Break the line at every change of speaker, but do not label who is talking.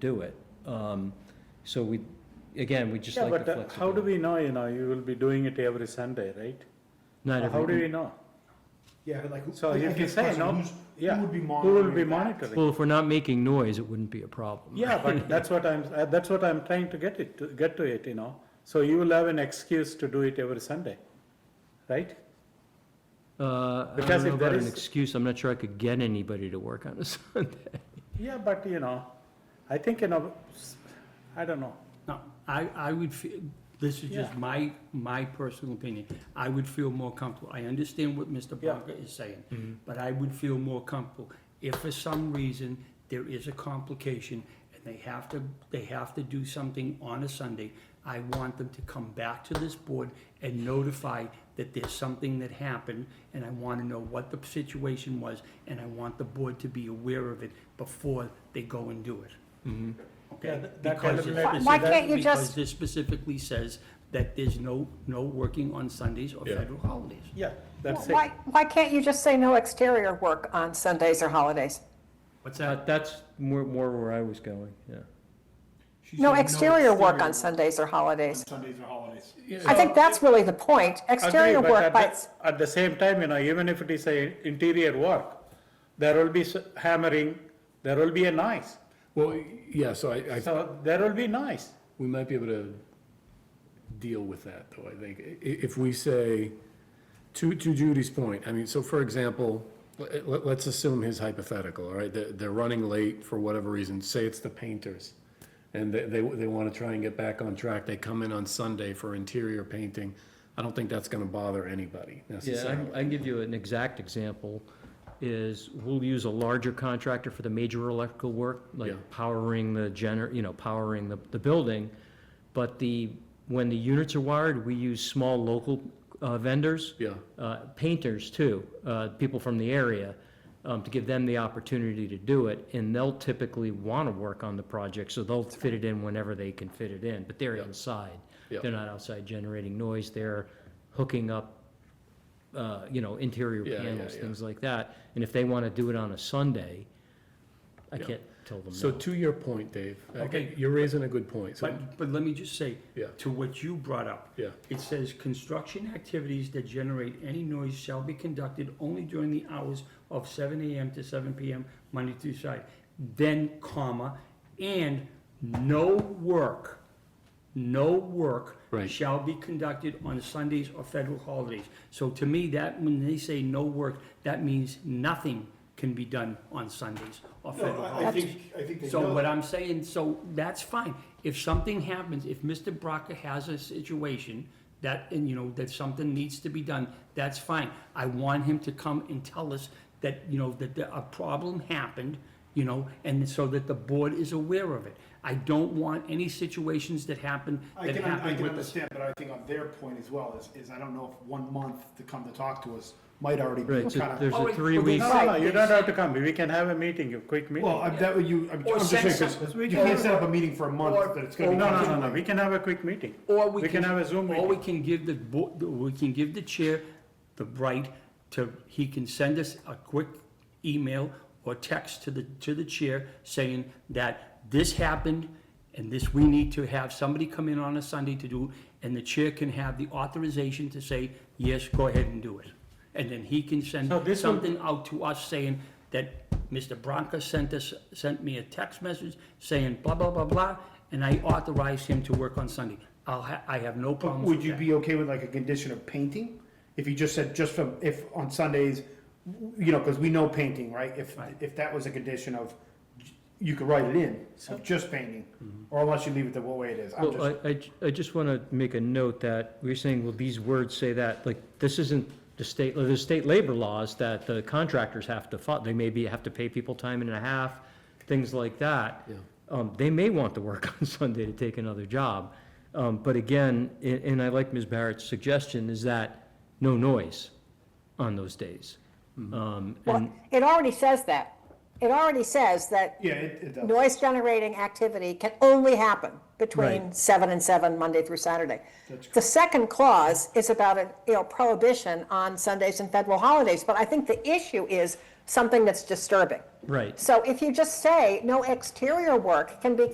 do it. Um, So we, again, we just
Yeah,
like the
but uh,
flexibility.
how do we know, you know, you will be doing it every Sunday, right?
Not
How do we
every,
know?
Yeah, but like. who-
So
I
if
think
you
it's
say
question,
no,
who's-
yeah,
Who would be
who
monitoring?
will be
that?
monitoring?
well, if we're not making noise, it wouldn't be a problem.
Yeah, but that's what I'm, uh, that's what I'm trying to get it, to get to it, you know? So you will have an excuse to do it every Sunday, right?
Uh, I don't
Because
know
if there
about an
is-
excuse, I'm not sure I could get anybody to work on a Sunday.
Yeah, but you know, I think, you know, s- I don't know.
No, I, I would feel, this is just
Yeah.
my, my personal opinion. I would feel more comfortable. I understand what Mr.
Yeah.
Barker is saying, but I would feel more comfortable if for some reason there is a complication and they have to, they have to do something on a Sunday. I want them to come back to this board and notify that there's something that happened and I want to know what the situation was and I want the board to be aware of it before they go and do it.
Yeah,
Okay,
that- that kind
because
of
it
let-
specif-
Why can't you
Because
just-
this specifically says that there's no, no working on Sundays or
Yeah.
federal holidays.
Yeah, that's it.
Why, why can't you just say no exterior work on Sundays or holidays?
What's
That-
that?
That's more, more where I was going, yeah.
She
No
said
exterior work on
exterior
Sundays or holidays.
Sundays or holidays.
I think that's really the point. Exterior
Agree, but
work
at
by,
the-
its-
At the same time, you know, even if it is a interior work, there will be s- hammering, there will be a noise.
Well, yeah, so I, I,
So there will be noise.
we might be able to deal with that, though, I think. I- if we say, to, to Judy's point, I mean, so for example, let, let- let's assume his hypothetical, all right? They're, they're running late for whatever reason, say it's the painters. And they, they, they wanna try and get back on track. They come in on Sunday for interior painting. I don't think that's gonna bother anybody
Yeah, I
necessarily.
can- I can give you an exact example, is we'll use a larger contractor for the major electrical work, like
Yeah.
powering the gener, you know, powering the, the building. But the, when the units are wired, we use small local uh, vendors.
Yeah.
uh, painters too, uh, people from the area, um, to give them the opportunity to do it, and they'll typically want to work on the project, so they'll fit it in whenever they can fit it in, but they're
Yep.
inside.
Yep.
They're not outside generating noise, they're hooking up, uh, you know, interior
Yeah, yeah,
panels,
yeah.
things like that. And if they want to do it on a Sunday, I
Yeah.
can't tell them
So
no.
to your point, Dave, I-
Okay.
you're raising a good point, so,
But, but let me just say,
Yeah.
to what you brought up.
Yeah.
It says, "Construction activities that generate any noise shall be conducted only during the hours of seven AM to seven PM, Monday through Friday." Then, comma, "and no work, no work
Right.
shall be conducted on Sundays or federal holidays." So to me, that, when they say no work, that means nothing can be done on Sundays or federal
I- I
holidays.
think, I think they
So what
know.
I'm saying, so that's fine. If something happens, if Mr. Brocker has a situation that, and you know, that something needs to be done, that's fine. I want him to come and tell us that, you know, that the- a problem happened, you know, and so that the board is aware of it. I don't want any situations that happen,
I
that
can, I
happen
can
with us.
understand, but I think on their point as well is, is I don't know if one month to come to talk to us might already be
Right, so
kind
there's
of.
a
All right,
three-week,
No, no,
well, Right,
no, you
they
don't have
said-
to come. We can have a meeting, a quick meeting.
Well, I'm, that would you, I'm I'm
Or
just
send
saying, because
some-
you
or-
can't set up a meeting for a month
or-
that it's
No,
gonna be.
no, no,
constant.
no, we can have a quick meeting.
Or we
We
can.
can have a Zoom
Or we
meeting.
can give the, bo- we can give the chair the right to, he can send us a quick email or text to the, to the chair saying that this happened and this, we need to have somebody come in on a Sunday to do, and the chair can have the authorization to say, yes, go ahead and do it. And then he can send
So this will-
something out to us saying that Mr. Bronca sent us, sent me a text message saying blah, blah, blah, blah, and I authorized him to work on Sunday. I'll ha, I have no
But
problem with
Would you
that.
be okay with like a condition of painting? If you just said, just from, if on Sundays, you know, because we know painting, right? If,
Right.
if that was a condition of, you could write it in, of just painting, or unless you leave it the way it is. I'm
well,
just,
I, I ju- I just want to make a note that, we're saying, well, these words say that, like, this isn't the state, the state labor laws that the contractors have to fo, they maybe have to pay people time and a half, things like that.
Yeah.
Um, they may want to work on Sunday to take another job. Um, but again, and, and I like Ms. Barrett's suggestion, is that no noise on those days.
Hmm.
Um,
well,
and,
it already says that. It already says that
yeah, it, it does.
noise generating activity can only happen between
Right.
seven and seven, Monday through Saturday. The second clause is about a, you know, prohibition on Sundays and federal holidays, but I think the issue is something that's disturbing.
right.
So if you just say no exterior work can be